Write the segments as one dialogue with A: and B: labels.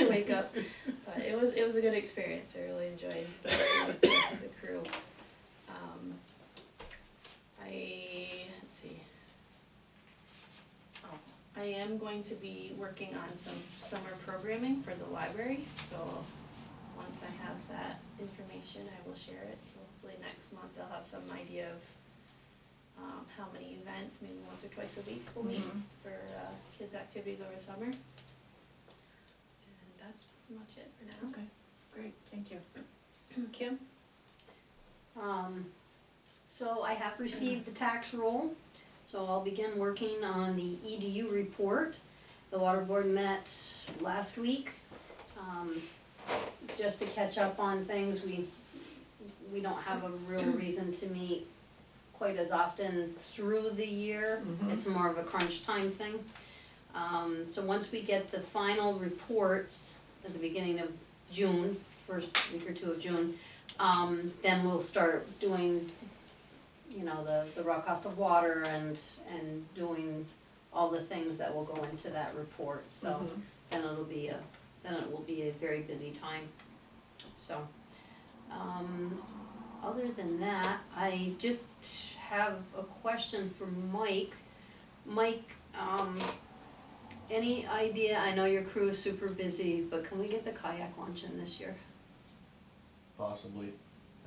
A: was a good experience. I really enjoyed working with the- the crew. Um, I, let's see. Oh, I am going to be working on some summer programming for the library, so once I have that information, I will share it. So hopefully next month I'll have some idea of um, how many events, maybe once or twice a week we'll meet for uh, kids' activities over summer. And that's pretty much it for now.
B: Okay, great, thank you. Mm-hmm.
A: Kim?
C: Um, so I have received the tax roll, so I'll begin working on the EDU report. The water board met last week, um, just to catch up on things, we, we don't have a real reason to meet quite as often through the year,
B: Mhm.
C: it's more of a crunch time thing. Um, so once we get the final reports at the beginning of June, first week or two of June, um, then we'll start doing, you know, the, the raw cost of water and, and doing all the things that will go into that report, so
B: Mhm.
C: then it'll be a, then it will be a very busy time, so. Um, other than that, I just have a question for Mike. Mike, um, any idea, I know your crew is super busy, but can we get the kayak launch in this year?
D: possibly.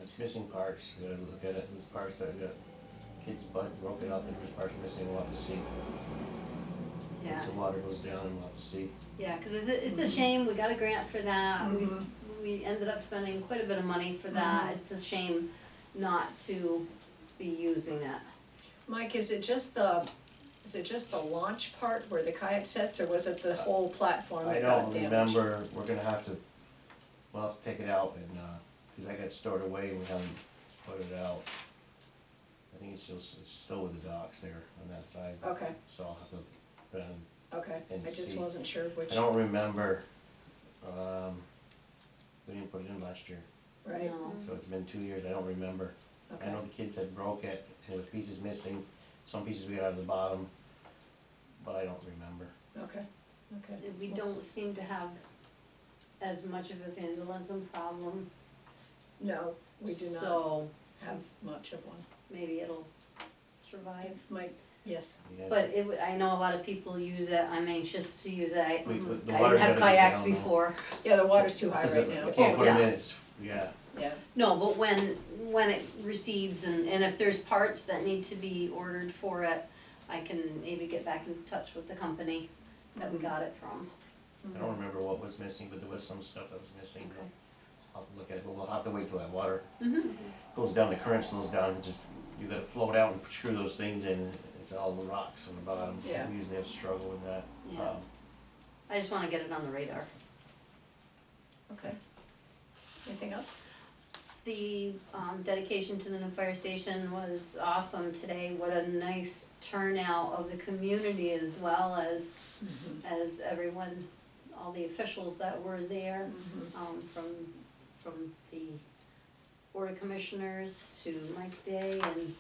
D: It's missing parts, you gotta look at it, there's parts that got kids' butt broken up and there's parts missing, we'll have to see.
C: Yeah.
D: Once the water goes down, we'll have to see.
C: Yeah, cause it's a, it's a
B: Mhm.
C: shame, we got a grant for that, we, s-
B: Mhm.
C: we ended up spending quite a bit of money for that, it's a shame not to be using it.
B: Mike, is it just the, is it just the launch part where the kayak sets, or was it the whole platform
D: I
B: that got
D: don't
B: damaged?
D: remember, we're gonna have to, we'll have to take it out and, uh 'cause cause I got stored away and we haven't put it out. I think it's still, it's still with the docks there on that side,
B: Okay,
D: so I'll have to, put it on.
B: okay,
D: And
B: I just
D: see.
B: wasn't sure which,
D: I don't remember, um, we didn't put it in last year,
B: right,
C: No.
D: so it's been two years, I don't remember. I
B: okay,
D: know the kids had broke it, and there was pieces missing, some pieces we got out of the bottom, but I don't remember.
B: okay, okay.
C: And We don't seem to have as much of a vandalism problem,
B: No, we do not
C: so
B: have much of one.
C: maybe it'll survive.
B: Mike, yes,
D: We had-
C: But it, would- I know a lot of people use it, I'm anxious to use it, I,
D: We, we- the
C: I
D: water
C: didn't
D: gotta
C: have
D: be
C: kayaks
D: down though.
C: before.
B: yeah, the water's too high
D: 'Cause
B: right
D: it-
B: now.
D: You can't put
C: Yeah.
D: 'em in, it's, yeah,
B: Yeah,
C: No, but when, when it recedes and, and if there's parts that need to be ordered for it, I can maybe get back in touch with the company that
B: Mm-hmm.
C: we got it from.
D: I don't remember what was missing, but there was some stuff that was missing,
C: Okay.
D: I'll have to look at it, but we'll have to wait till that water
C: Mm-hmm.
D: goes down, the current slows down, and just, you gotta float out and screw those things in, it's all the rocks on the bottom, we
B: Yeah.
D: usually have struggle with that.
C: Yeah.
D: Um,
C: I just wanna get it on the radar.
B: Mm-hmm. okay. Anything else?
C: The um, dedication to the new fire station was awesome today. What a nice turnout of the community as well as,
B: Mm-hmm.
C: as everyone, all the officials that were there.
B: Mhm.
C: um, from, from the Board of Commissioners to Mike Day and,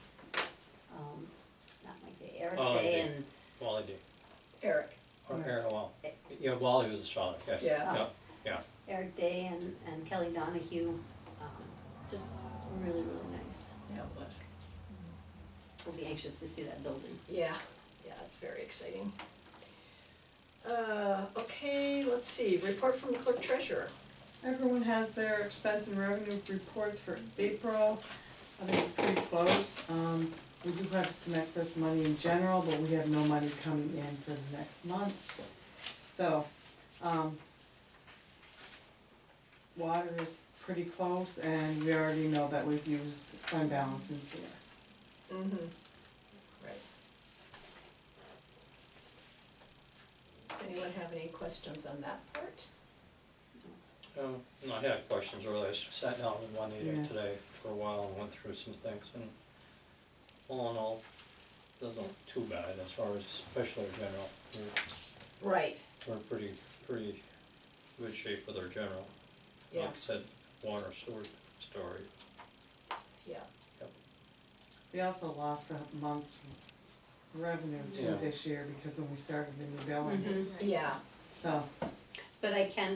C: um, not Mike Day, Eric
E: Oh,
C: Day
E: Day.
C: and,
E: Wally D.
B: Eric,
E: Or
B: Right.
E: Aaron Wall. Yeah, Wally was the shot, yes.
B: Yeah.
E: Yeah,
C: Eric Day and, and Kelly Donahue, um, just really, really nice.
B: yeah, it was,
C: We'll be anxious to see that building.
B: yeah, yeah, it's very exciting. Uh, okay, let's see, report from the clerk treasurer.
F: Everyone has their expense and revenue reports for April. I think it's pretty close. Um, we do have some excess money in general, but we have no money coming in for the next month. So, um, water is pretty close and we already know that we've used fund balance in sewer.
B: Mm-hmm. Right. Does anyone have any questions on that part?
E: Um, no, I had questions earlier, I sat down with Juanita
F: Yeah.
E: today for a while and went through some things, and all in all, doesn't look too bad as far as especially our general. We're,
B: Right,
E: we're in pretty, pretty good shape with our general.
B: yeah,
E: Like I said, water sewer story,
B: yeah,
F: We also lost a month's revenue
E: Yeah.
C: Mm-hmm.
E: Mm-hmm.
F: too this year because when we started the new billing,
B: yeah.
F: so.
C: But I can